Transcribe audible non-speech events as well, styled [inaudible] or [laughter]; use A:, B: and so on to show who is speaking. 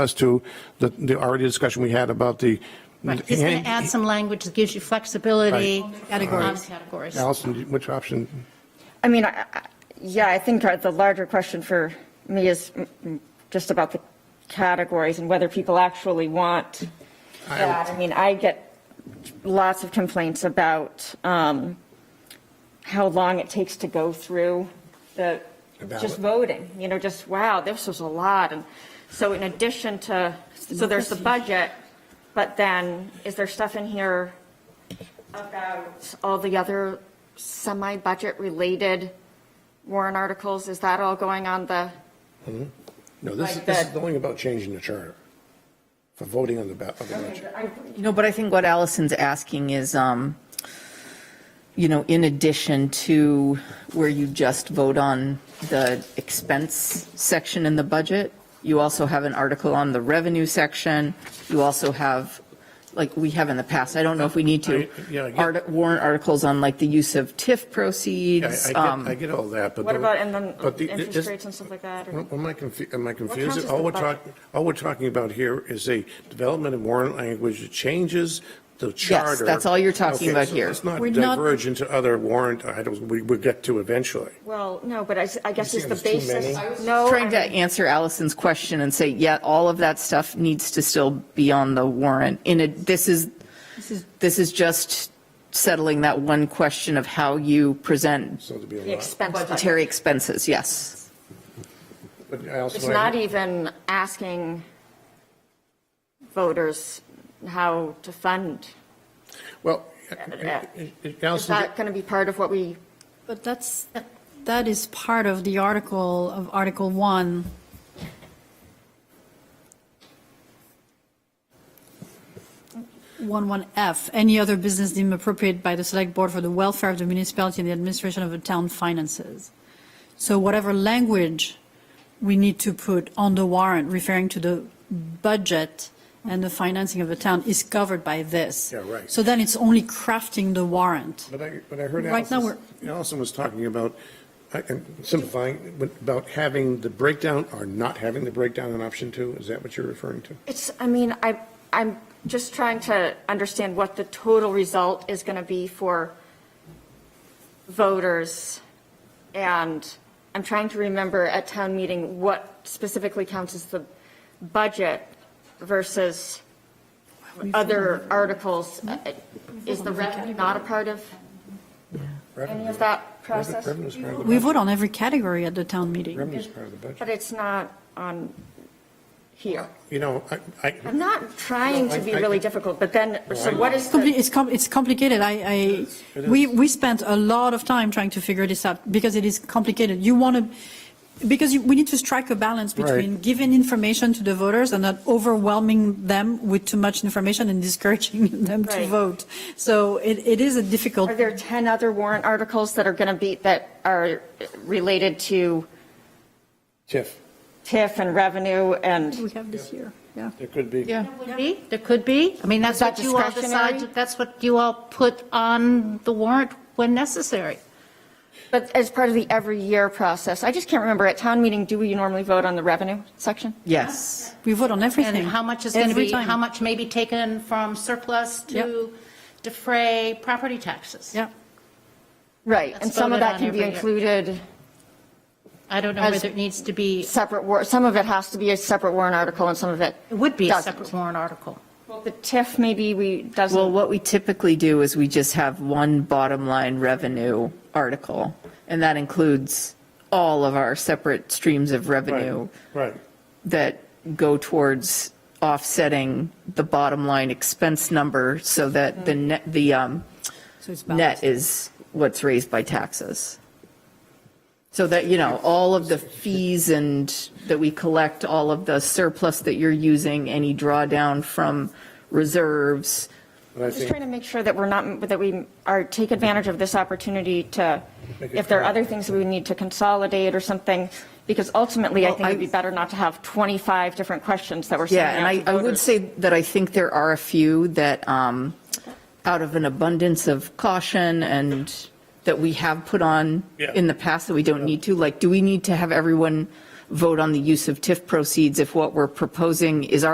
A: us to the, the already discussion we had about the.
B: Right, he's going to add some language that gives you flexibility.
C: Categories.
B: On categories.
A: Allison, which option?
D: I mean, I- I- yeah, I think uh, the larger question for me is mm, mm, just about the categories and whether people actually want that. I mean, I get lots of complaints about um, how long it takes to go through the, just voting, you know, just, wow, this was a lot. And so in addition to, so there's the budget, but then is there stuff in here about all the other semi-budget related warrant articles? Is that all going on the,
A: No, this is,
D: Like
A: this
D: that.
A: is only about changing the charter for voting on the, ba- on the budget.
C: No, but I think what Allison's asking is, um, you know, in addition to where you just vote on the expense section in the budget, you also have an article on the revenue section. You also have, like we have in the past, I don't know if we need to,
A: I- yeah, I get-
C: art- warrant articles on like the use of TIF
A: Yeah,
C: proceeds.
A: I- I
C: um,
A: get, I get all that, but.
D: what
A: the-
D: about, and then
A: but the- this-
D: interest rates and stuff like that? or-
A: Am I confused, am I
D: counts
A: confused?
D: as
A: All
D: the
A: we're
D: budget?
A: talking, all we're talking about here is a development of warrant language that changes the charter.
C: that's all you're talking
A: Okay,
C: about
A: so
C: here.
A: Let's not
B: We're not-
A: diverge into other warrant items we, we'll get to eventually.
D: Well, no, but I, s- I guess
A: You
D: it's
A: see
D: the
A: there's too
D: basis.
A: many?
D: No.
C: Trying
D: I
C: to
D: mean-
C: answer Allison's question and say, yeah, all of that stuff needs to still be on the warrant. In a, this is, this is just settling that one question of how you present
A: So to be a
D: The
A: lot.
D: expense budget.
C: budgetary expenses, yes.
A: But I also
D: It's
A: wanna-
D: not even asking voters how to fund.
A: Well, uh,
D: Yeah. Is
A: Allison,
D: that going to be part of what we,
B: But that's,
E: That is part of the article, of Article 1. One one f any other business deemed appropriate by the select board for the welfare of the municipality and the administration of the town finances. So whatever language we need to put on the warrant referring to the budget and the financing of the town is covered by this.
A: Yeah, right.
E: So then it's only crafting the warrant.
A: But I, but I heard
E: Right now,
A: Allison, Allison was talking about, I- and simplifying, but about having the breakdown or not having the breakdown in option two, is that what you're referring to?
D: it's, I mean, I, I'm just trying to understand what the total result is going to be for voters. And I'm trying to remember at town meeting what specifically counts as the budget versus other articles. Uh, Is the revenue not a part of any of that process?
A: Revenue's part of the
E: We
A: budget.
E: vote on every category at the town meeting.
A: Revenue's part of the budget.
D: But it's not on here.
A: You know, I, I,
D: I'm not trying to be really difficult, but then, so what is
E: It's
D: the?
E: compli- It's, com- it's complicated. I, I,
A: it
E: we,
A: is.
E: we spent a lot of time trying to figure this out because it is complicated. You want to, because you, we need to strike a balance between
A: Right.
E: giving information to the voters and not overwhelming them with too much information and discouraging [laughs] them to
D: Right.
E: vote. So it, it is a difficult.
D: Are there 10 other warrant articles that are going to be, that are related to
A: Tiff,
D: TIF and revenue and,
E: We have this year, yeah.
A: it could be.
C: Yeah.
B: could be, there could be. I mean, that's
D: that
B: what you all
D: discretionary?
B: decide, that's what you all put on the warrant when necessary.
D: but as part of the every year process? I just can't remember, at town meeting, do we normally vote on the revenue section?
C: Yes.
E: We vote on everything.
B: And how much is going to
E: every
B: be,
E: time.
B: how much may be taken from surplus to defray property taxes.
E: Yeah.
D: Right,
B: That's
D: and some of
B: voted
D: that
B: on
D: can
B: every
D: be
B: year.
D: included,
B: I don't know
D: As-
B: whether it needs to be,
D: separate, war- some of it has to be a separate warrant article and some of it.
B: it would be a
D: doesn't.
B: separate warrant article.
D: The TIF maybe we,
C: Well,
D: doesn't,
C: what we typically do is we just have one bottom line revenue article, and that includes all of our separate streams of revenue.
A: Right, right.
C: that go towards offsetting the bottom line expense number so that the net, the um,
E: So it's balanced.
C: net is what's raised by taxes. So that, you know, all of the fees and that we collect, all of the surplus that you're using, any drawdown from reserves,
A: But I
D: just
A: think,
D: trying to make sure that we're not, that we are, take advantage of this opportunity to,
A: Make it
D: if there are
A: clear.
D: other things that we need to consolidate or something, because ultimately, I
C: Well,
D: think it'd
C: I-
D: be better not to have 25 different questions that we're
C: Yeah,
D: sending
C: and
D: out to
C: I, I would
D: voters.
C: say that I think there are a few that, um, out of an abundance of caution and that we have put on
A: Yeah.
C: in the past that we don't need to, like, do we need to have everyone, vote on the use of TIF proceeds if what we're proposing is our